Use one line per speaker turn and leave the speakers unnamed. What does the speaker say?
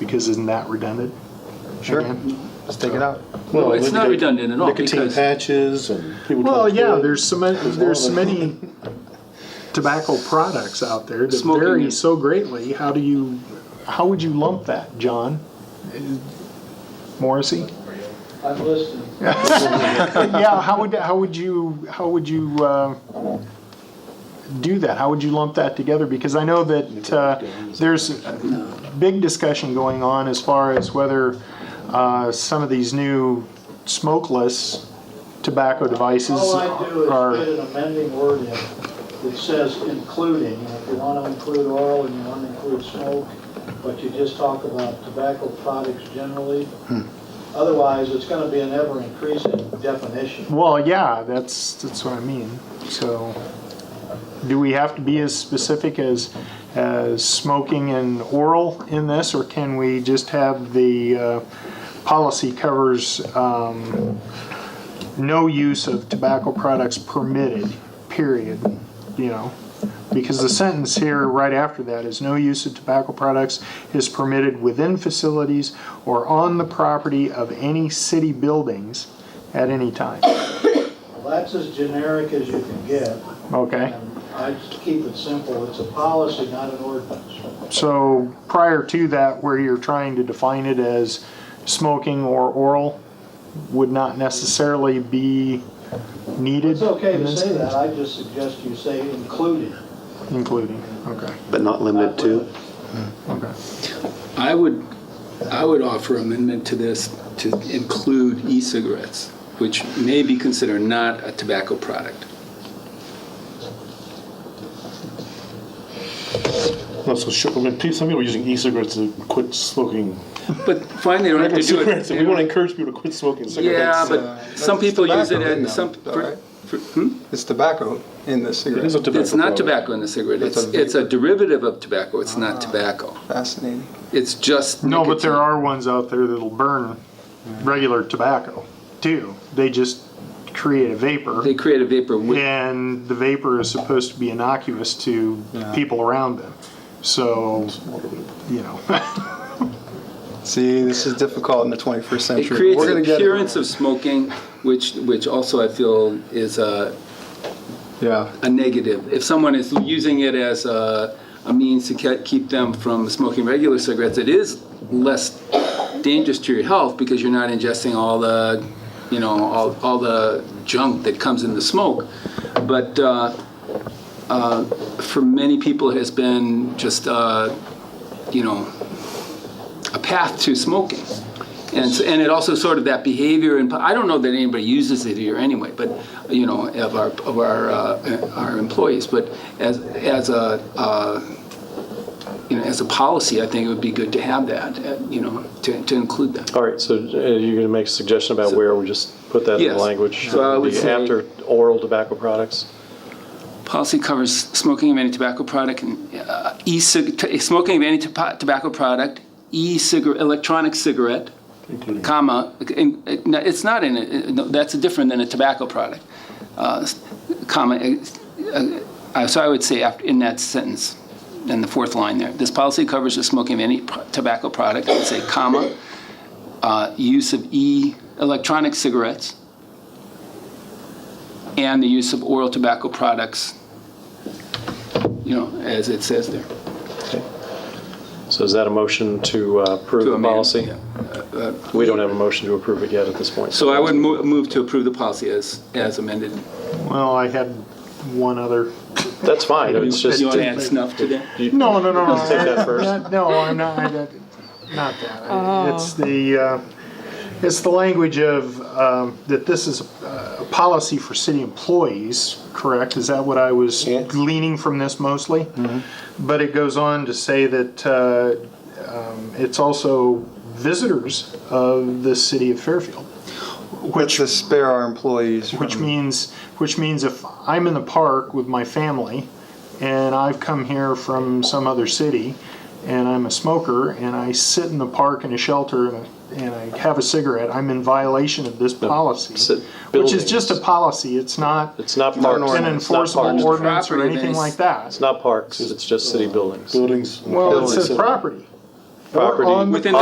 because isn't that redundant?
Sure,
Again?
let's take it out.
Well, it's not redundant at all
Nicotine
because
patches and people.
Well,
trying to
yeah,
quit.
there's so many, there's so many tobacco products out there that
Smoking
vary
is-
so greatly. How do you, how would you lump that, John? Morrissey?
I'm listening.
Yeah, how would, how would you, how would you uh, do that? How would you lump that together? Because I know that uh, there's a big discussion going on as far as whether uh, some of these new smokeless tobacco devices
All I do
are.
is get an amending word in that says including, and if you want to include oil and you want to include smoke, but you just talk about tobacco products generally. Otherwise, it's going to be an ever-increasing definition.
Well, yeah, that's, that's what I mean. So, do we have to be as specific as, as smoking and oral in this, or can we just have the uh, policy covers um, no use of tobacco products permitted, period, you know? Because the sentence here right after that is no use of tobacco products is permitted within facilities or on the property of any city buildings at any time.
That's as generic as you can get.
Okay,
and I just keep it simple. It's a policy, not an ordinance.
so prior to that, where you're trying to define it as smoking or oral would not necessarily be needed?
It's okay
in
to
this
say that.
case?
I just suggest you say including.
Including, okay,
but not limited to.
okay.
I would, I would offer amendment to this to include e-cigarettes, which may be considered not a tobacco product.
Well, so sure, we're gonna teach some people using e-cigarettes to quit smoking.
But fine, they don't have to do it.
Cigarettes, and we want to encourage people to quit smoking
Yeah,
cigarettes.
uh,
but some people use it at some. for- for- hmm?
It's tobacco in the cigarette.
It is a tobacco.
It's not
product.
tobacco in the cigarette. It's,
It's a vape.
it's a derivative of tobacco. It's not tobacco.
Fascinating.
It's just.
No, but there
nicotine.
are ones out there that'll burn regular tobacco too. They just create a vapor
They create a vapor with
and the vapor is supposed to be innocuous to people around them. So, you know.
See, this is difficult in the 21st
It
century.
creates
We're
an
gonna get it.
appearance of smoking, which, which also I feel is a,
Yeah,
a negative. If someone is using it as a, a means to ke- keep them from smoking regular cigarettes, it is less dangerous to your health because you're not ingesting all the, you know, all, all the junk that comes in the smoke. But uh, uh, for many people, it has been just, uh, you know, a path to smoking. And, s- and it also sort of that behavior, and I don't know that anybody uses it here anyway, but, you know, of our, of our, uh, our employees, but as, as a, uh, you know, as a policy, I think it would be good to have that, uh, you know, to, to include that.
All right, so uh, you're going to make a suggestion about where we just put that in the
Yes.
language?
So I would
The
say-
After oral tobacco products?
Policy covers smoking of any tobacco product, and, uh, e-cig, t- smoking of any topa- tobacco product, e-cigarette, electronic cigarette, comma, in- it- no, it's not in, it- it- no, that's different than a tobacco product, uh, s- comma, ex- uh, so I would say after, in that sentence, in the fourth line there, this policy covers the smoking of any pro- tobacco product, I'd say comma, uh, use of e-electronic cigarettes, and the use of oral tobacco products, you know, as it says there.
So is that a motion to uh, approve
To
the
amend,
policy?
yeah.
We don't have a motion to approve it yet at this point.
So I would mo- move to approve the policy as, as amended.
Well, I had one other.
That's fine, it's just,
You want to
you
add snuff to that?
No, no, no, no.
take that first.
Not- No, I'm not, I don't- not that. I- It's the, uh, it's the language of, um, that this is a a policy for city employees, correct? Is that what I was gleaning from this mostly?
Mm-hmm.
But it goes on to say that uh, um, it's also visitors of the city of Fairfield.
which to spare our employees.
Which
Um,
from-
means, which means if I'm in the park with my family and I've come here from some other city and I'm a smoker and I sit in the park in a shelter and, and I have a cigarette, I'm in violation of this
sit-
policy. Which is just a
buildings.
policy, it's not
it's not
Not an
parks,
an
it's not
enforceable
parks,
ordinance or
Property
anything
based.
like that.
it's not parks, it's just city buildings.
Buildings.
Well, it says
Buildings.
property. Or
Property-
on the
Within